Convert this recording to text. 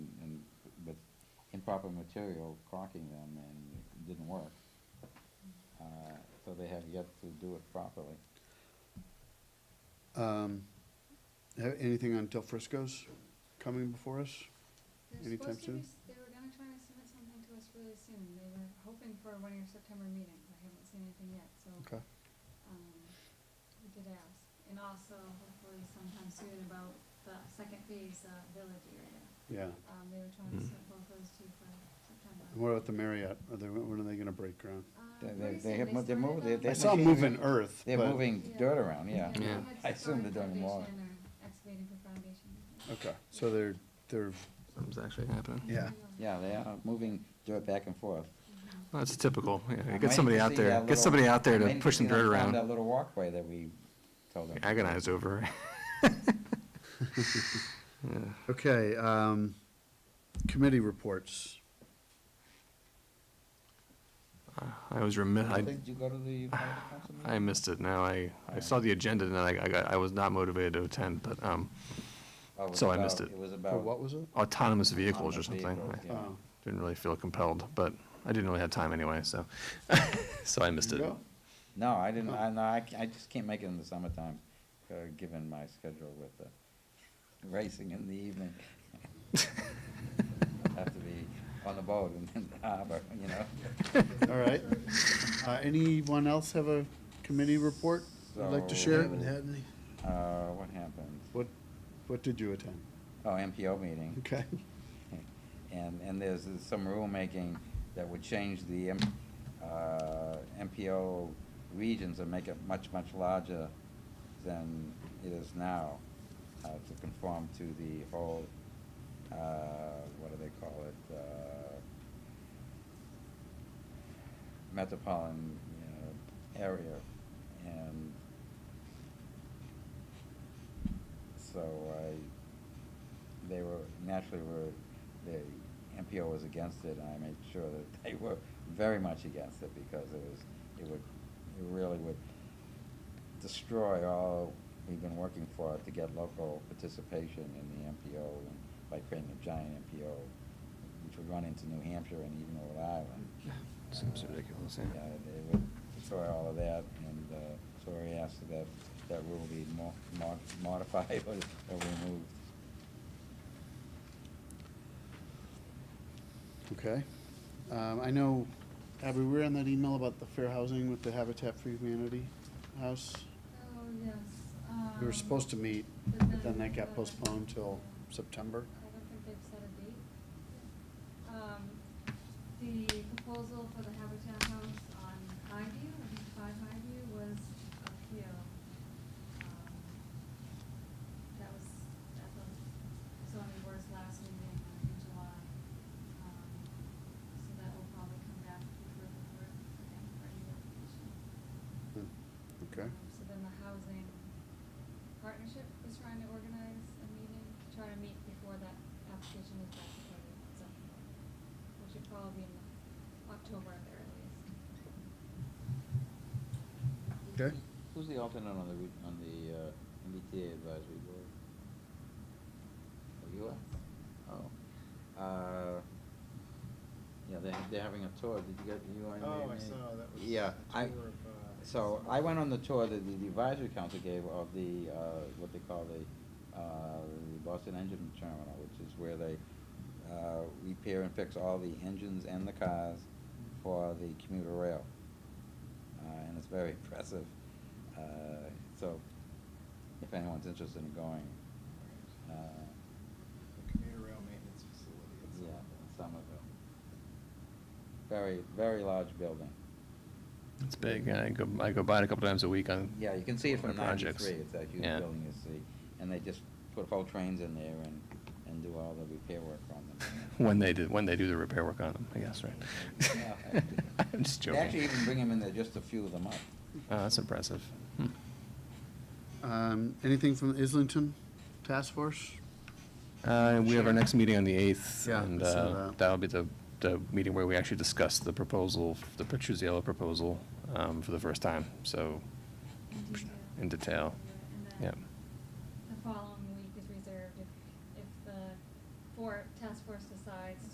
proper material caulking them and it didn't work. Uh, so they have yet to do it properly. Um, ha- Anything on Del Frisco's coming before us? They're Anytime supposed to be soon? s- They were gonna try to submit something to us really soon. They were hoping for one of your September meetings. I haven't seen anything yet, so, Okay. um, we did ask. And also hopefully sometime soon about the second phase, uh, village area. Yeah. Um, they were trying to Mm. submit both those two for September. And what about the Marriott? Are they, when are they gonna break ground? Um, They- they- pretty they soon have mo- they're started moving- they- on- they I saw 'em moving earth, They're but- moving dirt around, yeah. they Yeah. had I assume they're started doing more. foundation or Excavating for foundation. Okay, so they're, they're, Something's actually Mm-hmm. happening. Yeah. Yeah, they are moving dirt back and forth. Mhm. Well, it's typical. Yeah, I'm Get waiting somebody to out see there, that get little- somebody out there I'm to waiting push see some them dirt found around. That little walkway that we told them. Agonize over. Yeah. okay, um, committee reports. I was remiss, I, Did you go to the fire council meeting? I missed it now. I, I saw the agenda and then I, I got, I was not motivated to attend, but, um, Oh, it was so I about- missed it. It was For about. what was it? autonomous vehicles or autonomous something. vehicles, I yeah. Oh. Didn't really feel compelled, but I didn't really have time anyway, so, so I missed it. No? No, I didn't, Huh. I, no, I, ca- I just can't make it in the summertime, uh, given my schedule with the racing in the evening. Have to be on the boat and in the harbor, you know? All right. Uh, anyone else have a committee report they'd like to So- share? Haven't had Uh, what happened? What, what did you attend? Oh, MPO meeting, Okay, and, and there's there's some rulemaking that would change the, M- uh, MPO regions and make it much, much larger than it is now, uh, to conform to the whole, uh, what do they call it, uh, metropolitan you know, area, and so I, they were naturally were the MPO was against it, and I made sure that they were very much against it because it was it would it really would destroy all we've been working for to get local participation in the MPO and by creating a giant MPO, which would run into New Hampshire and even Rhode Island. Seems ridiculous, yeah. Yeah, they would destroy all of that, and uh, so we asked that that rule be mo- mod- modified or or removed. okay. Um, I know, Abby, we were on that email about the fair housing with the Habitat for Humanity house. Oh, yes. We were um, supposed to meet, but then that got postponed till I September. don't think they've set a date. Um, the proposal for the Habitat House on Highview, I think five Highview, was appealed. Um, That was at the zoning board's last meeting uh, in July. Um, So that will probably come back before the board, again, for any application. Hmm, Okay, Um, So then the housing partnership was trying to organize a meeting, to try to meet before that application is back before the zoning board, which would probably be in October at the earliest. okay. Who's the alternate on the, re- on the uh, MBTA advisory board? Oh, you are? Oh. Uh, Yeah, they're, they're having a tour, did you get, you on? Oh, the- I saw, that was. Yeah, a I, tour of, uh, so I went on the tour that the advisory council gave of the, uh, what they call the, uh, the Boston Engine Terminal, which is where they, uh, repair and fix all the engines and the cars for the commuter rail. Uh, and it's very impressive, uh, so if anyone's interested in going, uh, the Commuter rail maintenance facility. at yeah, Somerville. in Somerville. Very, very large building. It's big. I go, I go by it a couple times a week on. Yeah, you can see it on from projects. ninety-three, it's that huge Yeah. building you see, and they just put whole trains in there and, and do all the repair work on them. When they do, when they do the repair work on them, I guess, Yeah. right? I'm just They joking. actually even bring them in there just to fuel them up. Oh, that's impressive. Hmm. Um, anything from the Islington Task Force? Uh, we have our next meeting on the eighth, Yeah, I and saw uh, that. that'll be the, the meeting where we actually discuss the proposal, the Petruzzello proposal, um, for the first time, so, In detail. in detail. Yeah, Yep. And then the following week is reserved if, if the for, task force decides